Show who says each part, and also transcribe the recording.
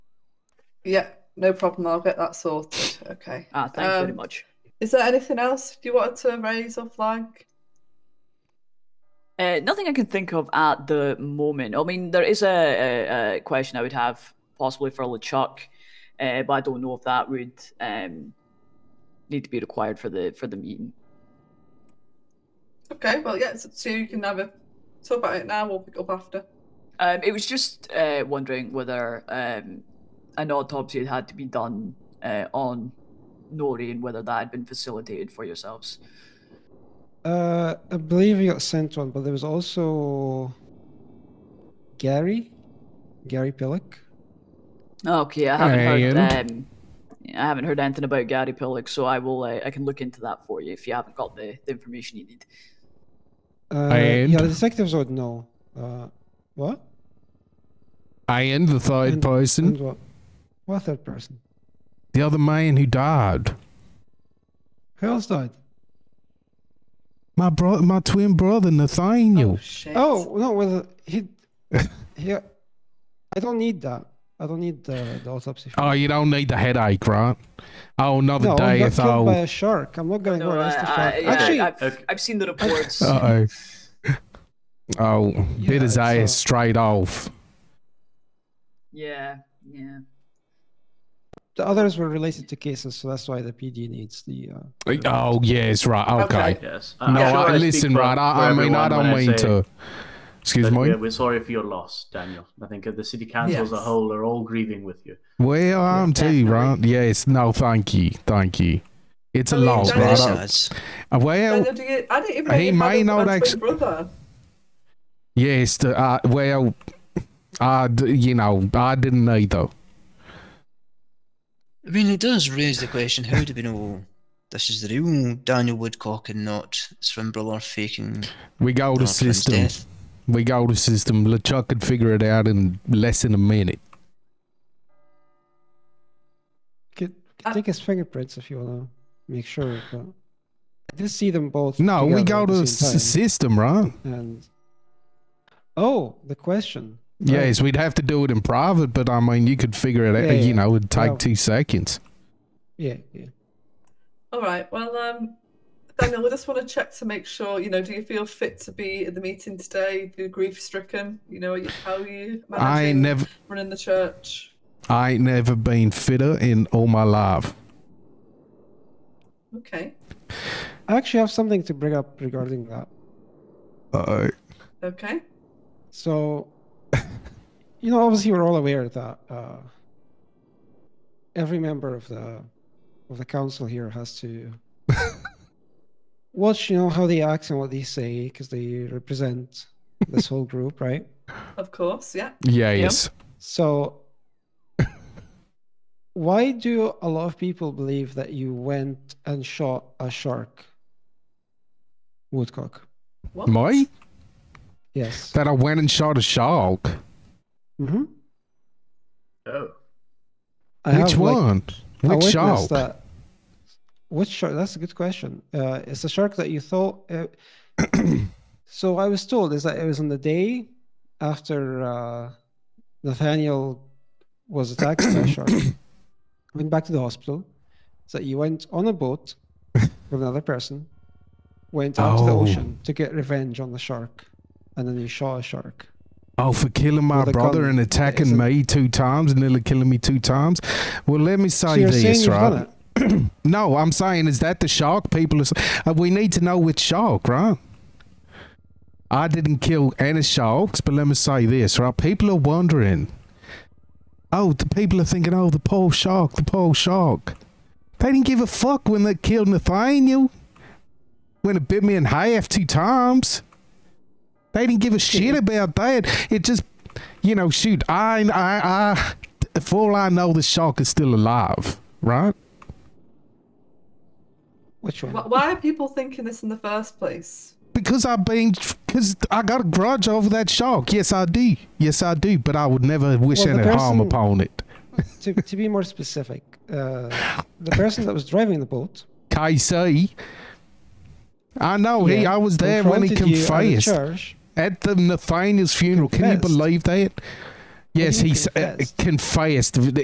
Speaker 1: Yeah, no problem. I'll get that sorted. Okay.
Speaker 2: Ah, thank you very
Speaker 1: Um,
Speaker 2: much.
Speaker 1: Is there anything else you wanted to raise or flag?
Speaker 2: Uh, nothing I can think of at the moment. I mean, there is a, a, a question I would have possibly for LeChuck, uh, but I don't know if that would um, need to be required for the for the meeting.
Speaker 1: Okay, well, yeah, so, so you can have a talk about it now. We'll pick up after.
Speaker 2: Um, it was just uh, wondering whether um, an autopsy had had to be done uh, on Nori and whether that had been facilitated for yourselves.
Speaker 3: Uh, I believe we got sent one, but there was also Gary, Gary Pillock.
Speaker 2: Okay, I haven't heard.
Speaker 4: Alright.
Speaker 2: Um, I haven't heard anything about Gary Pillock, so I will. Uh, I can look into that for you if you haven't got the, the information you need.
Speaker 3: Uh,
Speaker 4: And-
Speaker 3: yeah, the detectives would know. Uh, what?
Speaker 4: And the third
Speaker 3: And-
Speaker 4: person,
Speaker 3: And what? What third person?
Speaker 4: the other man who died,
Speaker 3: Who else died?
Speaker 4: my brother, my twin brother Nathaniel.
Speaker 1: Oh, shit.
Speaker 3: Oh no, well he, he. I don't need that. I don't need the, the autopsy. for
Speaker 4: Oh,
Speaker 3: that.
Speaker 4: you don't need the headache, right? Oh, another
Speaker 3: no, I
Speaker 4: day
Speaker 3: got
Speaker 4: if
Speaker 3: killed
Speaker 4: I'll.
Speaker 3: by a shark. I'm not going to
Speaker 2: No,
Speaker 3: go arrest the
Speaker 2: I-
Speaker 3: shark.
Speaker 2: I- yeah,
Speaker 3: Actually,
Speaker 2: I've,
Speaker 5: okay.
Speaker 2: I've seen the reports.
Speaker 4: Uh oh. Oh,
Speaker 3: Yeah,
Speaker 4: bit
Speaker 3: it's,
Speaker 4: his ass
Speaker 3: uh,
Speaker 4: straight off.
Speaker 2: yeah, yeah.
Speaker 3: the others were related to cases, so that's why the PD needs the. Uh,
Speaker 4: Oh, yes, right. Okay.
Speaker 5: Yes.
Speaker 4: No,
Speaker 5: I'm sure
Speaker 4: I,
Speaker 5: speak
Speaker 4: listen,
Speaker 5: for-
Speaker 4: right.
Speaker 5: for
Speaker 4: I, I mean, I
Speaker 5: everyone
Speaker 4: don't
Speaker 5: when
Speaker 4: mean
Speaker 5: say
Speaker 4: to. Excuse
Speaker 5: that
Speaker 4: me.
Speaker 5: We're, we're sorry for your loss, Daniel. I think uh, the city council as a
Speaker 1: Yes.
Speaker 5: whole are all grieving with you.
Speaker 4: Well, I'm too, right? Yes. No, thank you. Thank you. It's a
Speaker 1: I mean,
Speaker 4: loss,
Speaker 1: don't
Speaker 4: right?
Speaker 1: know.
Speaker 4: I- uh, Well,
Speaker 1: Daniel, do you, I didn't even know
Speaker 4: He
Speaker 1: you had
Speaker 4: may
Speaker 1: a-
Speaker 4: not
Speaker 1: a twin
Speaker 4: actu-
Speaker 1: brother.
Speaker 4: yes. The, uh, well, I, d- you know, I didn't either.
Speaker 6: I mean, it does raise the question: How do we know this is the real Daniel Woodcock and not Swinburler faking
Speaker 4: We go to
Speaker 6: Donald Trump's
Speaker 4: system.
Speaker 6: death?
Speaker 4: We go to system. LeChuck could figure it out in less than a minute.
Speaker 3: could,
Speaker 1: Uh,
Speaker 3: could take his fingerprints if you want to make sure. But I did see them both.
Speaker 4: No, we
Speaker 3: together
Speaker 4: go
Speaker 3: at the
Speaker 4: to
Speaker 3: same
Speaker 4: s- system, right?
Speaker 3: time, and. Oh, the question.
Speaker 4: Yes, we'd have to do it in private, but I mean, you could figure it out.
Speaker 3: Yeah,
Speaker 4: You
Speaker 3: yeah.
Speaker 4: know, it'd take
Speaker 3: Well-
Speaker 4: two seconds.
Speaker 3: Yeah, yeah.
Speaker 1: All right, well, um, Daniel, we just want to check to make sure, you know, do you feel fit to be at the meeting today? Do you grief stricken? You know, are you- how are you managing
Speaker 4: I ain't never,
Speaker 1: running the church?
Speaker 4: I ain't never been fitter in all my life.
Speaker 1: Okay,
Speaker 3: I actually have something to bring up regarding that.
Speaker 4: Uh,
Speaker 1: okay.
Speaker 3: So, you know, obviously we're all aware that uh, every member of the of the council here has to watch, you know, how they act and what they say because they represent this whole group, right?
Speaker 1: Of course, yeah.
Speaker 4: yes,
Speaker 3: So, why do a lot of people believe that you went and shot a shark, Woodcock?
Speaker 1: What?
Speaker 4: me
Speaker 3: Yes.
Speaker 4: that I went and shot a shark.
Speaker 3: hmm
Speaker 5: Oh.
Speaker 3: I
Speaker 4: Which
Speaker 3: have, like,
Speaker 4: one?
Speaker 3: I
Speaker 4: Which
Speaker 3: witnessed
Speaker 4: shark?
Speaker 3: That. Which shark? That's a good question. Uh, it's a shark that you thought. Uh, so I was told is that it was on the day after uh, Nathaniel was attacked by a shark. Went back to the hospital. Is that you went on a boat with another person, went out to the
Speaker 4: Oh.
Speaker 3: ocean to get revenge on the shark, and then you shot a shark.
Speaker 4: Oh, for killing my
Speaker 3: With a
Speaker 4: brother
Speaker 3: gun.
Speaker 4: and
Speaker 3: It's
Speaker 4: attacking
Speaker 3: a-
Speaker 4: me two times, nearly killing me two times. Well, let me
Speaker 3: So
Speaker 4: say
Speaker 3: you're saying
Speaker 4: this,
Speaker 3: you've
Speaker 4: right?
Speaker 3: done it.
Speaker 4: No, I'm saying is that the shark people are. s- Uh, we need to know which shark, right? I didn't kill any sharks, but let me say this, right? People are wondering. Oh, the people are thinking, oh, the poor shark, the poor shark. They didn't give a fuck when they killed Nathaniel. When it bit me in half two times. They didn't give a shit about that. It just, you know, shoot, I, I, I, for all I know, the shark is still alive, right?
Speaker 3: Which one?
Speaker 1: Wh- Why are people thinking this in the first place?
Speaker 4: Because I've been, because I got a grudge over that shark. Yes, I do. Yes, I do. But I would never wish
Speaker 3: Well, the
Speaker 4: any harm
Speaker 3: person-
Speaker 4: upon it.
Speaker 3: to, to be more specific, uh, the person that was driving the boat
Speaker 4: KC. I know he.
Speaker 3: Oh, yeah,
Speaker 4: I was there when
Speaker 3: confronted
Speaker 4: he
Speaker 3: you at the
Speaker 4: confessed at,
Speaker 3: church.
Speaker 4: the Nathaniel's funeral. Can you
Speaker 3: Confessed?
Speaker 4: believe that? Yes,
Speaker 3: mean
Speaker 4: he s- uh,
Speaker 3: confessed?
Speaker 4: confessed.